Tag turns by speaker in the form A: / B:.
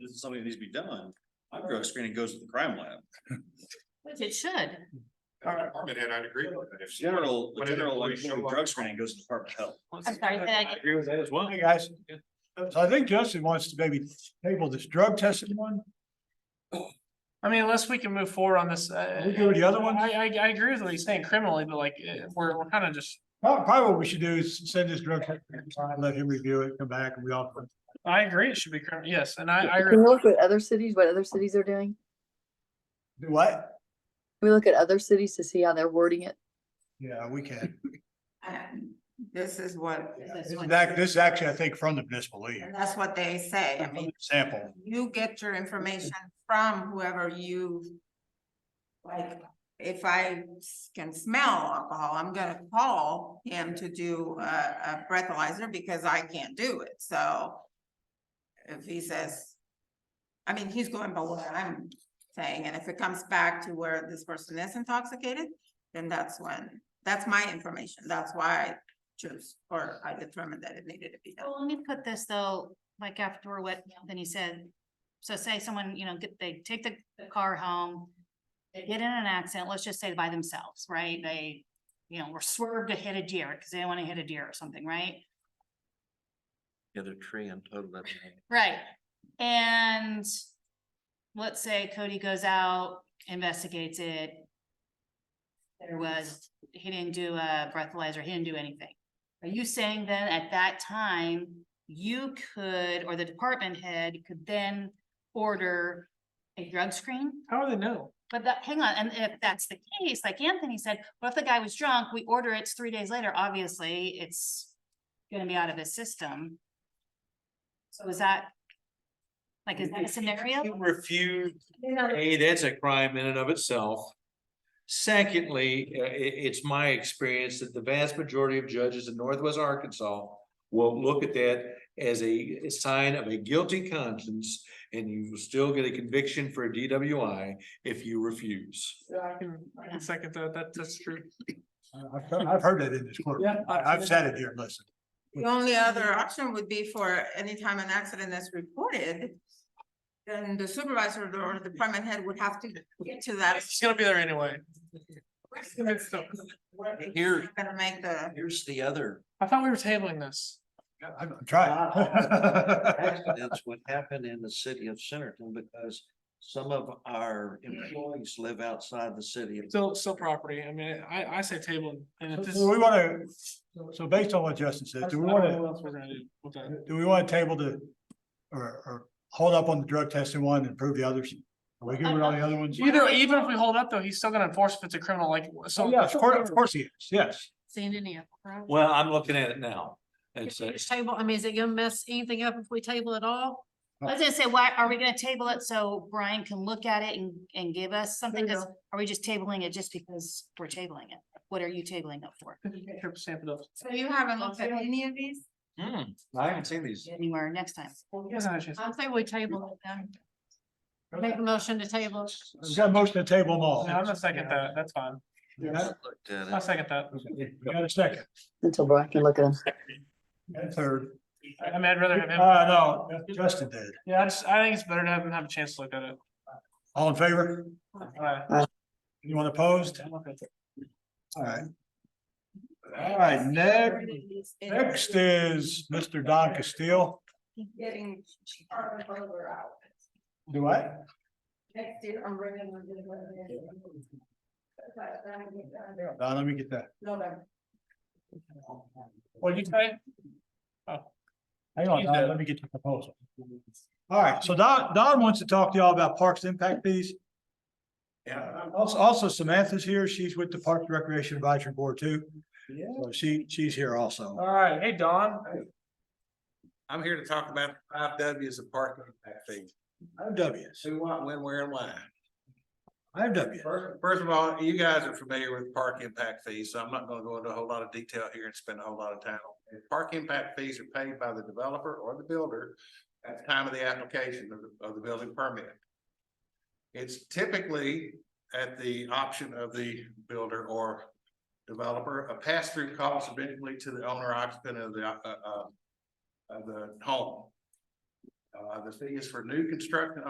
A: this is something that needs to be done, my drug screening goes to the crime lab.
B: It should.
C: As a Department head, I'd agree with that. If she-
A: General, the
C: When an
A: general, like,
C: employee show up-
A: drug screening goes to the Department of Health.
B: I'm sorry, say that again.
D: agree with that as well.
E: Hey, guys. So I think Justin wants to maybe table this drug testing one.
F: I mean, unless we can move forward on this, uh.
E: We go to the other ones?
F: I, I, I agree with what he's saying criminally, but like, uh, we're, we're kind of just,
E: Prob- Probably what we should do is send this drug, test to Todd, let him review it, come back and we all.
F: I agree, it should be criminal, yes, and I, I agree.
G: Can we look at other cities, what other cities are doing?
E: Do what?
G: Can we look at other cities to see how they're wording it?
E: Yeah, we can.
H: And this is what,
E: This is act- this is actually, I think, from the municipal league.
H: and that's what they say. I mean,
E: Sample.
H: you get your information from whoever you. Like, if I s- can smell alcohol, I'm gonna call him to do a, a breathalyzer because I can't do it, so. If he says, I mean, he's going by what I'm saying, and if it comes back to where this person is intoxicated, then that's when, that's my information, that's why I choose, or I determined that it needed to be done.
B: Well, let me put this though, like after what Anthony said. So say someone, you know, get, they take the the car home. They get in an accident, let's just say by themselves, right? They, you know, were swerved to hit a deer because they want to hit a deer or something, right?
D: The other tree and total. that thing.
B: Right, and let's say Cody goes out, investigates it. There was, he didn't do a breathalyzer, he didn't do anything. Are you saying then at that time, you could, or the department head could then order a drug screen?
F: How do they know?
B: But that, hang on, and if that's the case, like Anthony said, what if the guy was drunk, we order it it's three days later, obviously, it's gonna be out of his system. So is that? Like, is that a
D: You
B: scenario?
D: Refuse, A, that's a crime in and of itself. Secondly, uh, i- it's my experience that the vast majority of judges in Northwest Arkansas will look at that as a sign of a guilty conscience, and you will still get a conviction for a DWI if you refuse.
F: Yeah, I can, I can second that, that, that's true.
E: I've, I've heard that in this court.
F: Yeah, I-
E: I've sat it here and listened.
H: The only other option would be for anytime an accident is reported. Then the supervisor or the department head would have to get to that.
F: She's gonna be there anyway.
H: where it's
D: Here-
H: Gonna make the,
D: Here's the other,
F: I thought we were tabling this.
E: I'm I'm trying.
D: accidents would happen in the city of Centerton because some of our employees live outside the city.
F: Still, still property, I mean, I, I say table, and if
E: So-
F: this.
E: So we wanna, so- so based on what Justin said,
F: that's-
E: do we
F: I don't know
E: wanna,
F: what else we're gonna do with that.
E: do we wanna table the, or, or hold up on the drug testing one and prove the others? Are we good with all the other ones?
F: Either, even if we hold up though, he's still gonna enforce if it's a criminal, like, so.
E: Oh, yeah, of course, of course he is, yes.
I: San Diego. right?
D: Well, I'm looking at it now. It's,
I: Can we just Table, I mean, is it gonna mess anything up if we table it all?
B: I was gonna say, why, are we gonna table it so Brian can look at it and, and give us something?
F: There you
B: 'Cause Are we just tabling it just because we're tabling it? What are you tabling it for?
F: Trip stamp it up.
H: so you haven't looked at any of these?
D: Hmm, I haven't seen these.
B: Anywhere next time?
F: He hasn't had a chance.
I: I say we table it then. Make a motion to table. it.
E: We've got most of the table them all.
F: No, I'm gonna second that, that's fine,
E: You got it?
F: I'll second that.
E: You got a second,
G: Until Brian can look at them.
E: You got a third.
F: I I mean, I'd rather have him.
E: Uh, no, Justin did.
F: Yeah, I just, I think it's better to have him have a chance to look at it.
E: All in favor?
F: Alright.
E: Anyone opposed? All right. All right, next, next is Mr. Don Castile.
H: Getting. charged over out.
E: Do I?
H: Next year, I'm bringing them to the- But then I get done, they're
E: Don, let me get that.
H: November.
F: What'd you say?
E: Hang on, Don, let me get the proposal. All right, so Don, Don wants to talk to y'all about parks impact fees. Yeah. Also, also Samantha's here. She's with the Parks and Recreation Advisory Board too. Yeah. So she, she's here also.
F: Alright, hey Don,
C: I'm here to talk about the five W's of parking impact fees.
E: IFWs,
C: Who, what, when, where, and why.
E: IFWs.
C: First, first of all, you guys are familiar with park impact fees, so I'm not gonna go into a whole lot of detail here and spend a whole lot of time. on it. Park impact fees are paid by the developer or the builder at the time of the application of the, of the building permit. It's typically at the option of the builder or developer, a pass-through cost eventually to the owner occupant of the, uh, uh, of the home.
D: Uh, the fee is for new construction